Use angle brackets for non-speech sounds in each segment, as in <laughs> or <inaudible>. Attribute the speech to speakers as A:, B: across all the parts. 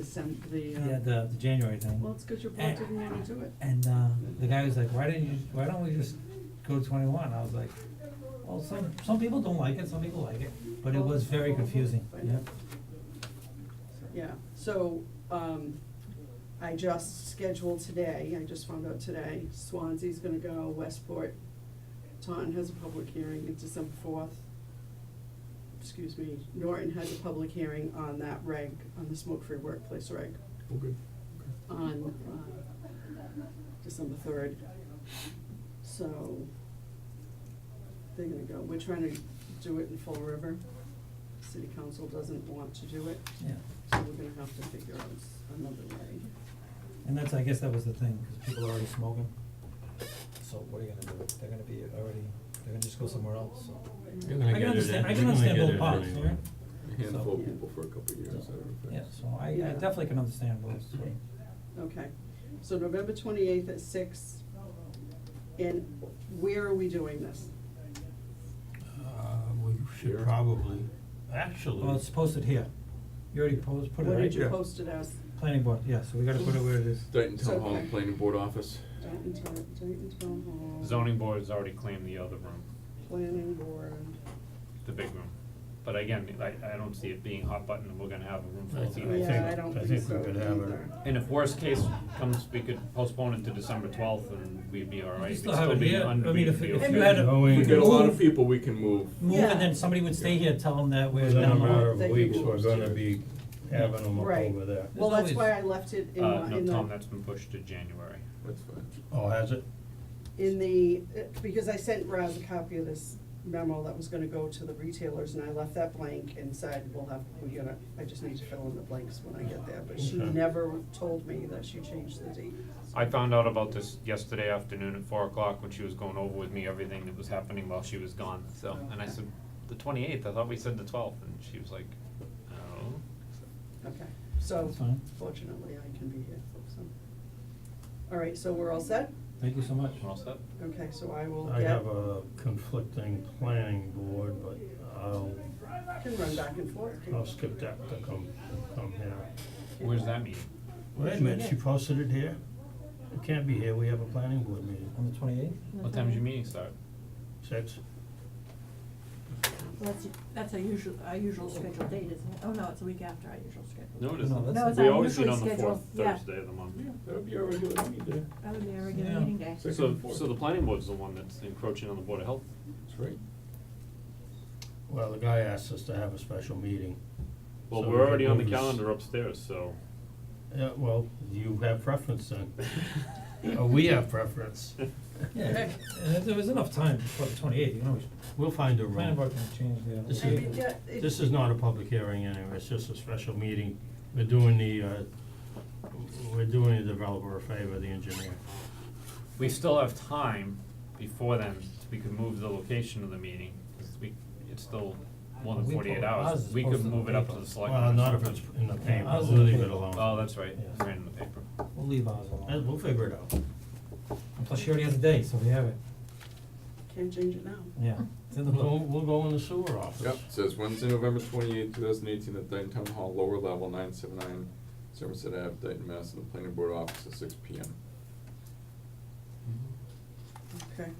A: December, the,
B: Yeah,
A: uh,
B: the, the January thing.
A: well, it's because your board didn't wanna do it.
B: And, uh, the guy was like, why didn't you, why don't we just go twenty-one? I was like, well, some, some people don't like it, some people like it, but it was very confusing, yeah.
A: Yeah, so, um, I just scheduled today, I just found out today, Swansea's gonna go, Westport, Taunton has a public hearing, it's December fourth. Excuse me, Norton has a public hearing on that reg, on the smoke-free workplace reg,
C: Oh, good.
A: on, uh, December third. So, they're gonna go, we're trying to do it in Fall River, city council doesn't want to do it.
B: Yeah,
A: So we're gonna have to figure out s- another way.
B: and that's, I guess that was the thing, cause people are already smoking. So what are you gonna do? They're gonna be already, they're gonna just go somewhere else, so.
D: You're gonna
B: I
D: get
B: can
D: it
B: understand,
D: in-
B: I
D: you're
B: can
D: gonna
B: understand
D: get
B: both
D: it
B: parts,
D: anyway.
B: yeah.
C: A handful
A: Yeah.
C: of people for a couple of years, I don't think.
B: Yeah, so I, I
A: Yeah.
B: definitely can understand both, so.
A: Okay, so November twenty-eighth at six. And where are we doing this?
D: Uh, we should
C: Here.
D: probably, actually.
B: Well, it's posted here. You already posed, put it
A: What
B: right?
A: did you
C: Yeah.
A: post it as?
B: Planning board, yeah, so we gotta put it where it is.
C: Dayton
A: So,
C: Town Hall
A: okay.
C: Planning Board Office.
A: Dayton Town, Dayton Town Hall.
E: Zoning board's already claimed the other room,
A: Planning board.
E: the big room. But again, I, I don't see it being hot button, and we're gonna have a room full
D: I
E: of
D: think-
E: people.
A: Yeah, I don't
D: I
A: think
D: think we
A: so
D: could have it.
A: either.
E: And if worst case comes, we could postpone it to December twelfth and we'd be all
B: You
E: right. We'd
B: still have it
E: be
B: here. I mean,
E: unbeaten,
B: if-
E: be
B: if
E: okay.
B: you had a-
D: No, we
C: If we
D: can
C: get a lot of
B: move-
C: people, we can move.
B: Move
A: Yeah.
B: and then somebody would stay here, tell them that we're
D: Within a
B: down the
D: matter
B: hall.
D: of
A: They can
D: weeks,
A: move
D: we're
A: it.
D: gonna be having them up
A: Right.
D: over there.
A: Well,
B: There's
A: that's why I
B: always-
A: left it in,
E: Uh,
A: uh,
E: no,
A: in
E: Tom,
A: the,
E: that's been pushed to January.
C: That's fine.
D: Oh, has it?
A: in the, uh, because I sent Roz a copy of this memo that was gonna go to the retailers and I left that blank and said, we'll have, we're gonna, I just need to fill in the blanks when I get there. But she
D: Okay.
A: never told me that she changed the date.
E: I found out about this yesterday afternoon at four o'clock when she was going over with me everything that was happening while she was gone, so, and I said, the twenty-eighth, I thought we said the twelfth, and she was like, oh.
A: Okay, so
B: That's fine.
A: fortunately, I can be here, so. All right, so we're all set?
B: Thank you so much.
E: We're all set?
A: Okay, so I will
D: I
A: get,
D: have a conflicting planning board, but I'll,
A: can run back and forth.
D: I'll skip that to come, come here.
E: Where's that meeting?
D: Wait a minute, she posted it here? It can't be here, we have a planning board meeting.
B: On the twenty-eighth?
E: What time's your meeting start?
D: Six?
F: That's, that's our usual, our usual scheduled date, isn't it? Oh, no, it's a week after our usual scheduled.
E: No,
F: date.
E: it
B: No,
E: isn't.
B: that's- No, it's
E: We
F: our
E: always meet
F: usually
E: on the fourth
F: scheduled, yeah.
E: Thursday of the month.
C: That'll be our regular meeting day.
F: That would be our regular
B: Yeah.
F: meeting day.
E: <laughs>
F: <laughs>
C: Six
E: So,
C: and four.
E: so the planning board's the one that's encroaching on the Board of Health?
C: That's right.
D: Well, the guy asked us to have a special meeting.
E: Well,
D: so
E: we're already on the
D: it was-
E: calendar upstairs, so.
D: Yeah, well, you have preference then. Oh, we have preference.
B: Yeah, and if there was enough time before the twenty-eighth, you know,
D: We'll find a
B: the planning
D: room.
B: board can change the.
D: This
A: I
D: is-
A: mean, yeah, it-
D: This is not a public hearing anyway, it's just a special meeting. We're doing the, uh, we're doing the developer a favor, the engineer.
E: <laughs> We still have time before then, we could move the location of the meeting, 'cause we, it's still more than
B: We
E: forty-eight
B: po-
E: hours.
B: ours is
E: We could
B: posted in the
E: move it up to
B: paper.
E: the selectmen.
D: Well,
E: or
D: not if it's
E: something.
D: in the paper,
B: Ours is
D: we'll
B: in the
D: leave it
B: paper.
D: alone.
E: Oh, that's right,
D: Yeah.
E: it's ran in the paper.
B: We'll leave ours
D: Uh,
B: alone.
D: We'll figure it out.
B: And plus, she already has a date, so we have it,
A: Can't change it now.
B: yeah, it's in the
D: We'll, go-
B: book.
D: we'll go in the sewer office.
C: Yep, says Wednesday, November twenty-eighth, two thousand eighteen, at Dayton Town Hall, lower level, nine seven nine, Somerset Ave, Dayton, Mass, in the Planning Board Office at six P M.
A: Okay.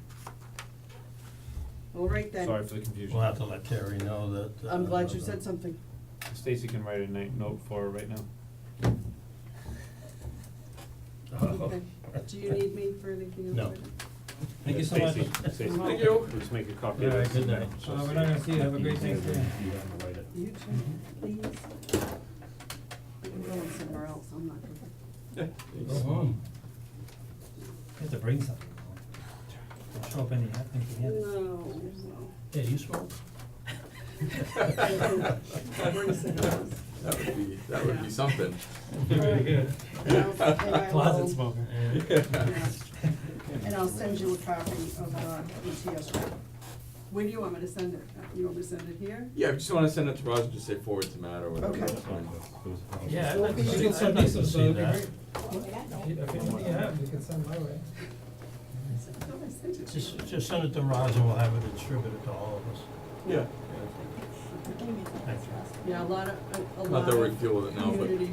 A: All right then.
E: Sorry for the confusion.
D: We'll have to let Terry know that. uh,
A: I'm glad you said
D: <laughs>
A: something.
E: Stacy can write a night note for her right now.
C: Uh-huh.
A: Okay. Do you need me for anything else?
D: Uh-huh. No.
A: right now?
B: Thank you so much.
E: Stacy, Stacy.
A: Thank
C: you.
E: Just make a copy
D: Yeah,
E: of this.
D: good night.
B: Uh, we're not gonna see you, have a great Thanksgiving.
D: You have to write it.
A: You too, please. I'm going somewhere else, I'm not going.
D: Go home.
B: You have to bring something. Don't Show up any, I think you have it.
A: No,
D: Hey, you smoke?
A: I'll bring some else.
C: That would be, that would
A: Yeah.
C: be something.
A: And I'll- and I will-
B: Closet
D: <laughs>
B: smoker.
A: Yeah. And I'll send you a copy of uh, E the ETS rep. Where do you want me to send it? Uh, You want me to send it here?
C: Yeah, if you just wanna send it to Roger, just say forward to Matt or whatever.
A: Okay.
C: that's fine.
B: Yeah, I'd like to
D: I'd
B: see,
D: like
B: I'd
D: to
B: like to
D: see
B: see
D: that.
B: that. If anything you have, you can send my way.
A: I said, I thought I sent it to you.
D: Just, just send it to Roz and we'll have it distributed to all of us.
C: Yeah.
D: Thank you.
A: Yeah, a lot of, a- a lot of.
C: Not that we're gonna deal with it now, but-
A: communities